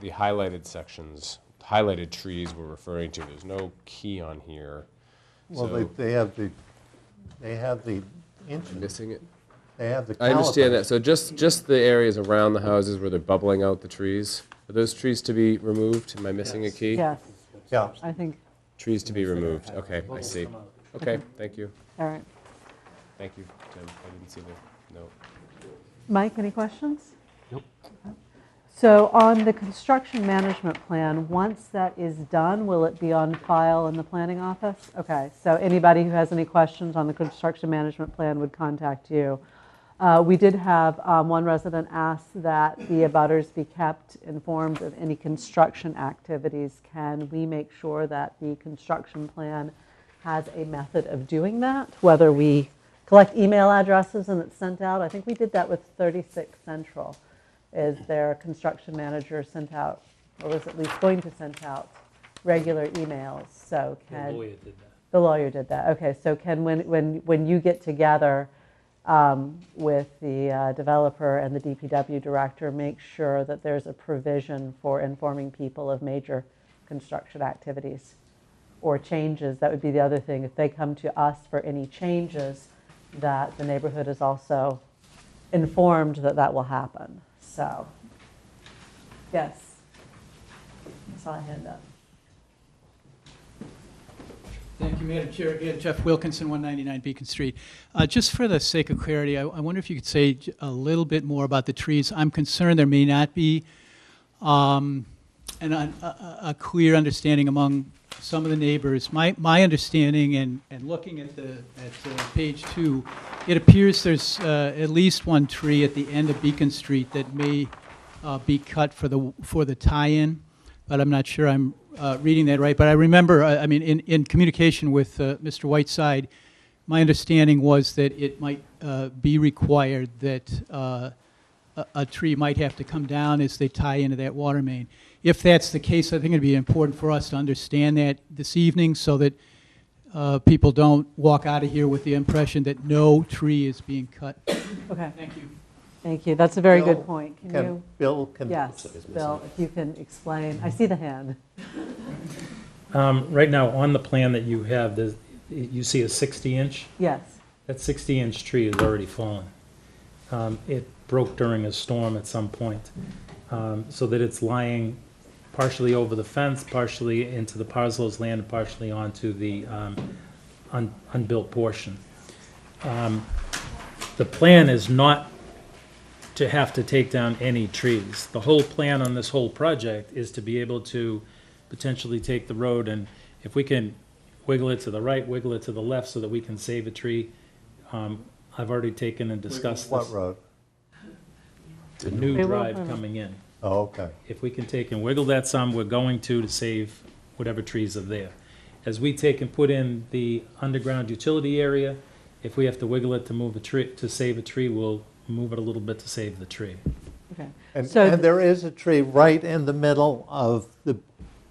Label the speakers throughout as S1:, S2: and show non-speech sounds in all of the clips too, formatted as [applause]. S1: the highlighted sections, highlighted trees we're referring to, there's no key on here.
S2: Well, they,
S1: So-
S2: they have the, they have the inches,
S1: Missing it?
S2: they have the
S1: I understand
S2: calipers.
S1: that, so just, just the areas around the houses where they're bubbling out the trees, are those trees to be removed? Am I missing a key?
S3: Yes,
S2: Yeah,
S3: I think,
S1: Trees to be removed, okay, I see. Okay, thank you,
S3: all right.
S1: thank you, Tim, I didn't see the note.
S3: Mike, any questions? So on the construction management plan, once that is done, will it be on file in the planning office? Okay, so anybody who has any questions on the construction management plan would contact you. Uh, We did have um, one resident ask that the abutters be kept informed of any construction activities. Can we make sure that the construction plan has a method of doing that? Whether we collect email addresses and it's sent out? I think we did that with 36 Central is their construction manager sent out, or was at least going to send out, regular emails, so
S4: The
S3: can.
S4: lawyer did that.
S3: The lawyer did that, okay, so Ken, when, when, when you get together um, with the uh, developer and the DPW director, make sure that there's a provision for informing people of major construction activities or changes, that would be the other thing, if they come to us for any changes, that the neighborhood is also informed that that will happen, so. Yes. I saw a hand up.
S5: Thank you, Madam Chair. Again, Jeff Wilkinson, 199 Beacon Street. Uh, Just for the sake of clarity, I I wonder if you could say j- a little bit more about the trees. I'm concerned there may not be um, an- a a- a clear understanding among some of the neighbors. My my understanding, and and looking at the, at uh, page two, it appears there's uh, at least one tree at the end of Beacon Street that may uh, be cut for the, for the tie-in, but I'm not sure I'm uh, reading that right. But I remember, uh, I I mean, in, in communication with uh, Mr. Whiteside, my understanding was that it might uh, be required that uh, a, a tree might have to come down as they tie into that water main. If that's the case, I think it'd be important for us to understand that this evening so that uh, people don't walk out of here with the impression that no tree is being cut.
S3: Okay.
S5: Thank you.
S3: Thank you, that's a very
S2: Bill,
S3: good point. Can
S2: Can
S3: you,
S2: Bill can.
S3: yes, Bill, if you can explain, I see the hand.
S4: Um, Right now, on the plan that you have, there's- you see a 60-inch.
S3: Yes,
S4: That 60-inch tree is already fallen. Um, It broke during a storm at some point, um, so that it's lying partially over the fence, partially into the parcel's land, and partially onto the um, un- unbuilt portion. Um, The plan is not to have to take down any trees. The whole plan on this whole project is to be able to potentially take the road, and if we can wiggle it to the right, wiggle it to the left, so that we can save a tree, um, I've already taken and discussed
S2: What
S4: this,
S2: road?
S4: the new
S3: They will
S4: drive
S3: permit.
S4: coming in.
S2: Oh, okay.
S4: If we can take and wiggle that some, we're going to, to save whatever trees are there. As we take and put in the underground utility area, if we have to wiggle it to move a tree, to save a tree, we'll move it a little bit to save the tree.
S3: okay.
S2: And,
S3: So-
S2: and there is a tree right in the middle of the,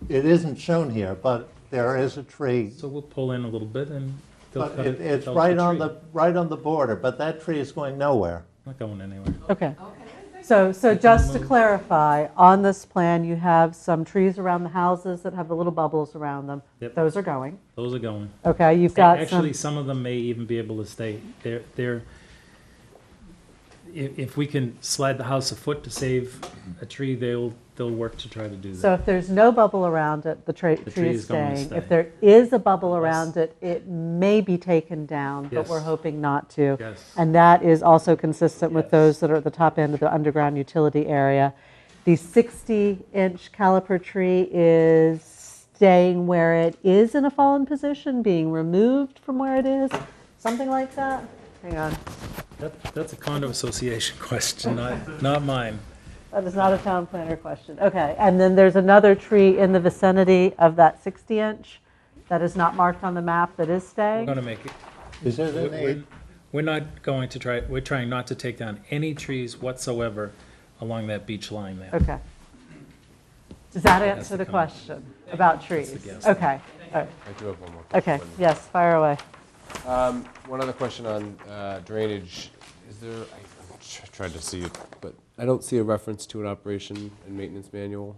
S2: it isn't shown here, but there is a tree.
S4: So we'll pull in a little bit and they'll
S2: But
S4: cut
S2: it-
S4: it.
S2: it's
S4: they'll
S2: right
S4: cut
S2: on
S4: tree.
S2: the, right on the border, but that tree is going nowhere.
S4: Not going anywhere.
S3: Okay. So, so just to
S4: move.
S3: clarify, on this plan, you have some trees around the houses that have the little bubbles around them.
S4: Yep.
S3: Those are going.
S4: Those are going.
S3: Okay, you've got some,
S4: Actually, some of them may even be able to stay. They're, they're, if, if we can slide the house a foot to save a tree, they'll, they'll work to try to do that.
S3: so if there's no bubble around it, the tra-
S4: The
S3: tree is
S4: going to
S3: staying.
S4: stay.
S3: If there is a bubble around it, it may be taken down, but
S4: Yes.
S3: we're hoping not to.
S4: Yes.
S3: And that is also consistent with
S4: Yes.
S3: those that are at the top end of the underground utility area. The 60-inch caliper tree is staying where it is in a fallen position, being removed from where it is, something like that? Hang on,
S4: That, that's a condo association [laughs] question, not, not mine.
S3: that is not a town planner question. Okay, and then there's another tree in the vicinity of that 60-inch that is not marked on the map that is
S4: We're
S3: staying?
S4: gonna make it,
S2: Is it
S4: we're-
S2: an
S4: we're,
S2: eight?
S4: we're not going to try, we're trying not to take down any trees whatsoever along that beach line there.
S3: Okay. Does that
S4: That's
S3: answer
S4: the
S3: the
S4: comment.
S3: question about trees?
S4: guess.
S3: Okay, all right.
S1: I do have one more.
S3: Okay,
S1: question.
S3: yes, fire away.
S1: Um, One other question on uh, drainage. Is there, I- I'm tr- trying to see it, but I don't see a reference to an operation and maintenance manual.